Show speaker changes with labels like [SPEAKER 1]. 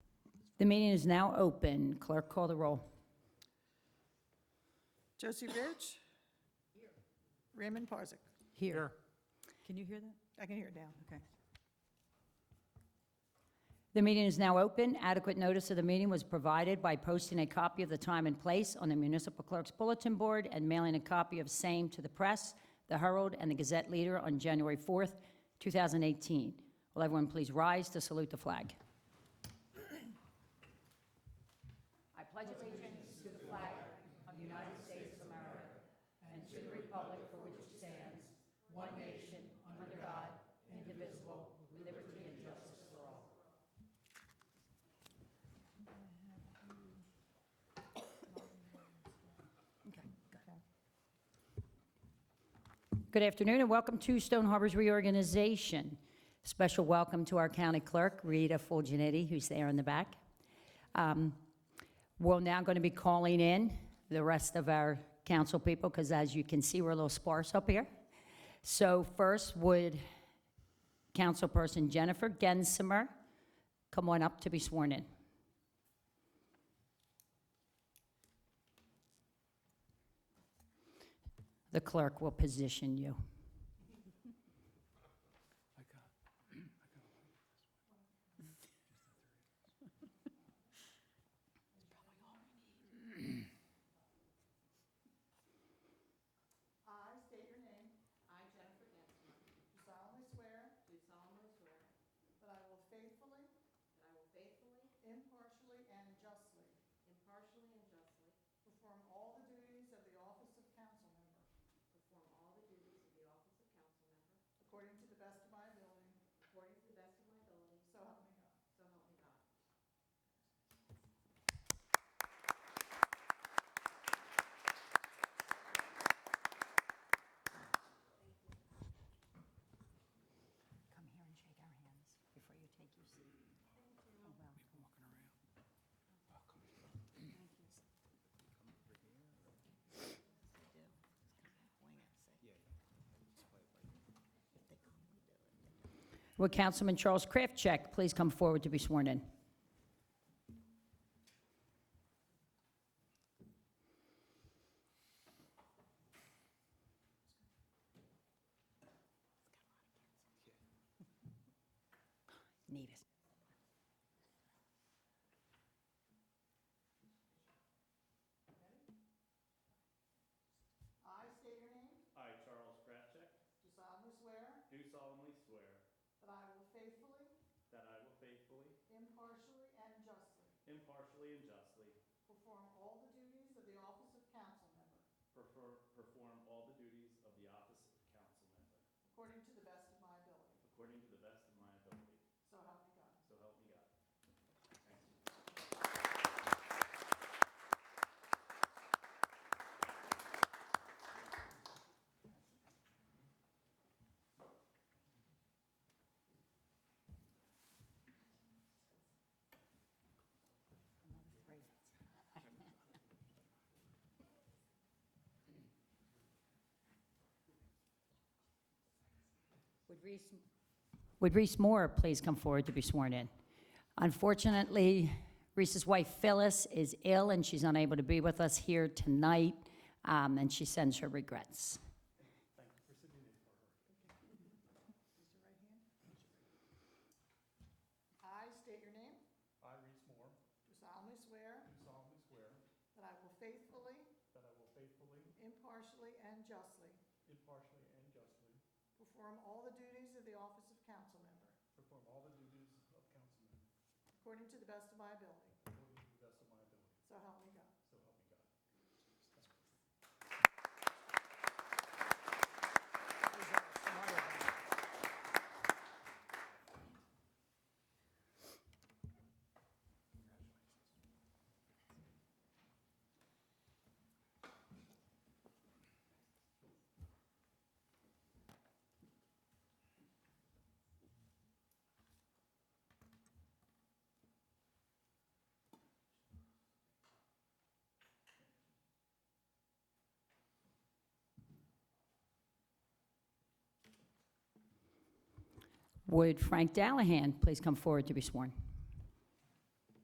[SPEAKER 1] The meeting is now open. Clerk, call the roll.
[SPEAKER 2] Josie Rich? Raymond Parzak.
[SPEAKER 3] Here.
[SPEAKER 4] Can you hear that?
[SPEAKER 2] I can hear it now.
[SPEAKER 4] Okay.
[SPEAKER 1] The meeting is now open. Adequate notice of the meeting was provided by posting a copy of the time and place on the municipal clerk's bulletin board and mailing a copy of same to the press, the Herald, and the Gazette Leader on January 4th, 2018. Will everyone please rise to salute the flag? I pledge allegiance to the flag of the United States of America and to the republic for which it stands, one nation, under God, indivisible, with liberty and justice for all. Good afternoon and welcome to Stone Harbor's reorganization. Special welcome to our county clerk, Rita Fulgenetti, who's there in the back. Um, We're now going to be calling in the rest of our council people because as you can see, we're a little sparse up here. So first, would councilperson Jennifer Gensimer come on up to be sworn in? The clerk will position you.
[SPEAKER 4] Come here and shake our hands before you take your seat. Oh, well.
[SPEAKER 1] Would Councilman Charles Kraftcheck please come forward to be sworn in? Need it.
[SPEAKER 5] I, Charles Krafcheck. Do solemnly swear. That I will faithfully. Impartially and justly. Perfor- Perform all the duties of the office of council member. According to the best of my ability. So help me God. Thank you.
[SPEAKER 1] Would Reese- Would Reese Moore please come forward to be sworn in? Unfortunately, Reese's wife Phyllis is ill and she's unable to be with us here tonight, um, and she sends her regrets.
[SPEAKER 2] I state your name.
[SPEAKER 5] I, Reese Moore,
[SPEAKER 2] Do solemnly swear
[SPEAKER 5] do solemnly swear
[SPEAKER 2] that I will faithfully,
[SPEAKER 5] that I will faithfully,
[SPEAKER 2] impartially, and justly
[SPEAKER 5] impartially, and justly
[SPEAKER 2] perform all the duties of the office of council member
[SPEAKER 5] perform all the duties of council member
[SPEAKER 2] according to the best of my ability.
[SPEAKER 5] according to the best of my ability.
[SPEAKER 2] So help me God.
[SPEAKER 5] So help me God.
[SPEAKER 1] Would Frank Dallahan please come forward to be sworn?